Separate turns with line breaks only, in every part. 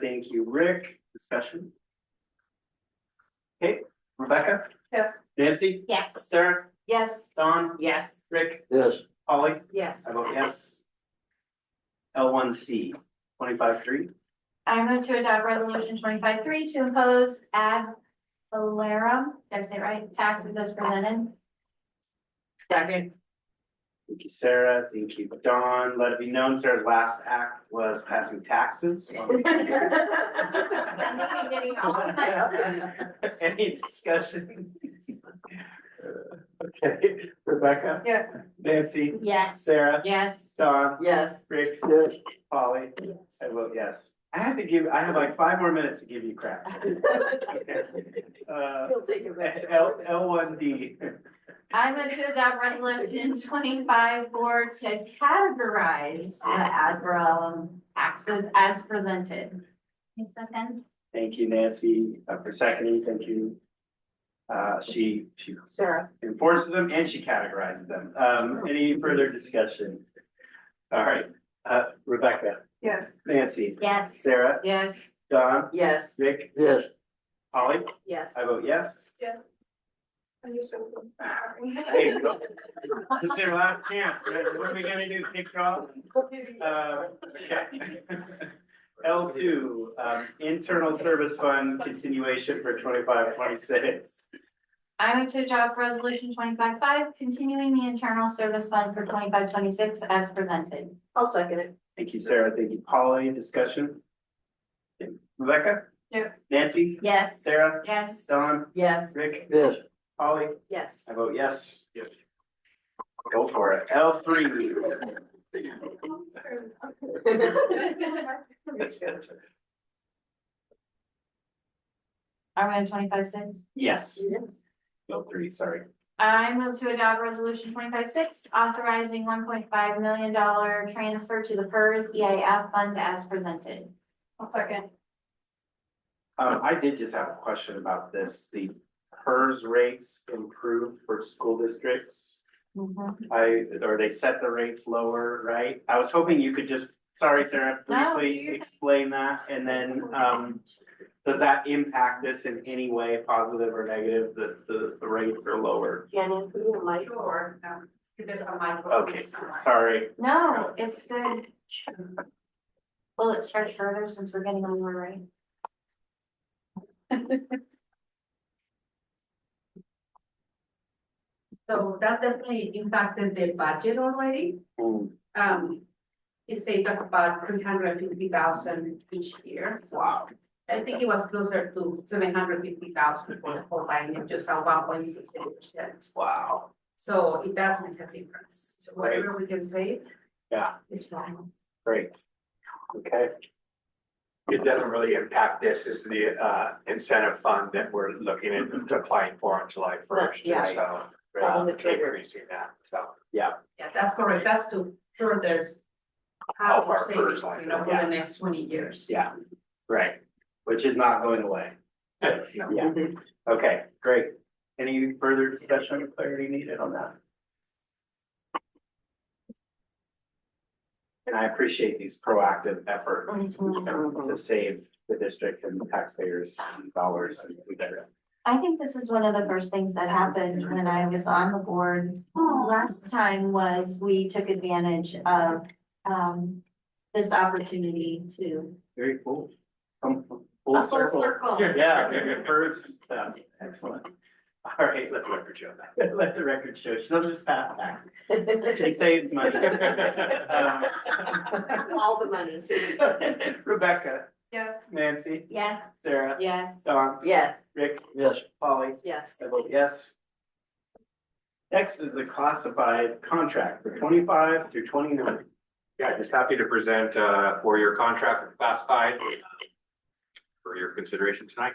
Thank you, Rick. Discussion? Okay, Rebecca,
Yes.
Nancy,
Yes.
Sarah,
Yes.
Don,
Yes.
Rick,
Yes,
Polly,
Yes.
I vote yes. L one C, twenty-five three,
I move to adopt resolution twenty-five three to impose ad valorem, did I say it right, taxes as presented?
Second.
thank you, Sarah, thank you, Don, let it be known, Sarah's last act was passing taxes.
I'm gonna be getting all of that.
Any discussion? Okay, Rebecca,
Yes.
Nancy,
Yes.
Sarah,
Yes.
Don,
Yes.
Rick,
yes,
Polly, I vote yes. I have to give, I have like five more minutes to give you crap. Uh,
He'll take it
L, L one D,
I move to adopt resolution twenty-five four to categorize the ad valorem taxes as presented. Second.
thank you Nancy uh, for seconding, thank you. Uh, she, she
Sarah.
enforces them and she categorizes them. Um, any further discussion? All right, uh, Rebecca,
Yes.
Nancy,
Yes.
Sarah,
Yes.
Don,
Yes.
Rick,
yes,
Polly,
Yes.
I vote yes. There you go. This is your last chance. What are we gonna do? Kick her off? Uh, okay. L two, um, internal service fund continuation for twenty-five, twenty-six.
I move to adopt resolution twenty-five five, continuing the internal service fund for twenty-five twenty-six as presented.
I'll second it.
Thank you, Sarah. Thank you, Polly. Discussion? Rebecca,
Yes.
Nancy,
Yes.
Sarah,
Yes.
Don,
Yes.
Rick,
yes,
Polly.
Yes.
I vote yes. Go for it. L three.
Are we on twenty-five six?
Yes. L three, sorry.
I move to adopt resolution twenty-five six, authorizing one point five million dollar transfer to the PERS EAF fund as presented.
I'll second.
Um, I did just have a question about this. The PERS rates improved for school districts.
Mm-hmm.
I, or they set the rates lower, right? I was hoping you could just, sorry, Sarah,
No,
briefly
you-
explain that, and then, um, does that impact this in any way, positive or negative, that the, the rates are lower?
Shannon, we need a mic.
Sure, um, there's a microphone
Okay,
somewhere.
sorry,
No, it's good. Will it stretch further since we're getting on the right?
So that definitely impacted the budget already.
Mm,
Um, it saved us about three hundred fifty thousand each year. Wow. I think it was closer to seven hundred fifty thousand for the whole line, and just a one point six eight percent.
wow,
So it does make a difference. So Whatever we can save.
Yeah.
Is wrong.
great. Okay,
It doesn't really impact this, this is the uh incentive fund that we're looking at applying for on July first,
Mm-hmm. Yeah.
so.
Pulling
um,
the trigger.
Increasing that, so.
Yeah, that's correct. That's to further. Have
Help
our
our
savings,
first
you know, for
yeah.
the next twenty years.
yeah, right, which is not going away. Yeah, okay, great. Any further discussion or clarity needed on that? And I appreciate these proactive efforts to save the district and the taxpayers' dollars.
I think this is one of the first things that happened when I was on the board. Last time was we took advantage of um this opportunity to.
Very cool. Come full circle. Yeah, very first, um, excellent. All right, let the record show that. Let the record show. She doesn't just pass back. It saves money. Um,
All the monies.
Rebecca,
Yes.
Nancy,
Yes,
Sarah,
yes.
Don,
Yes.
Rick,
yes,
Polly,
Yes.
I vote yes. Next is the classified contract for twenty-five through twenty-nine.
Yeah, just happy to present uh for your contract with classified. uh, For your consideration tonight.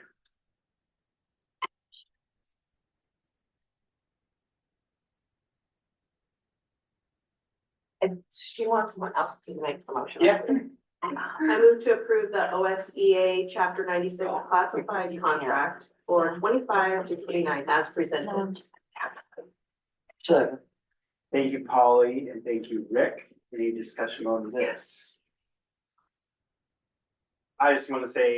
If she wants someone else to make the motion.
Yeah.
I move to approve the OSEA chapter ninety-six classified contract for twenty-five to twenty-nine as presented.
second,
Thank you, Polly, and thank you, Rick. Any discussion on this? I just want to say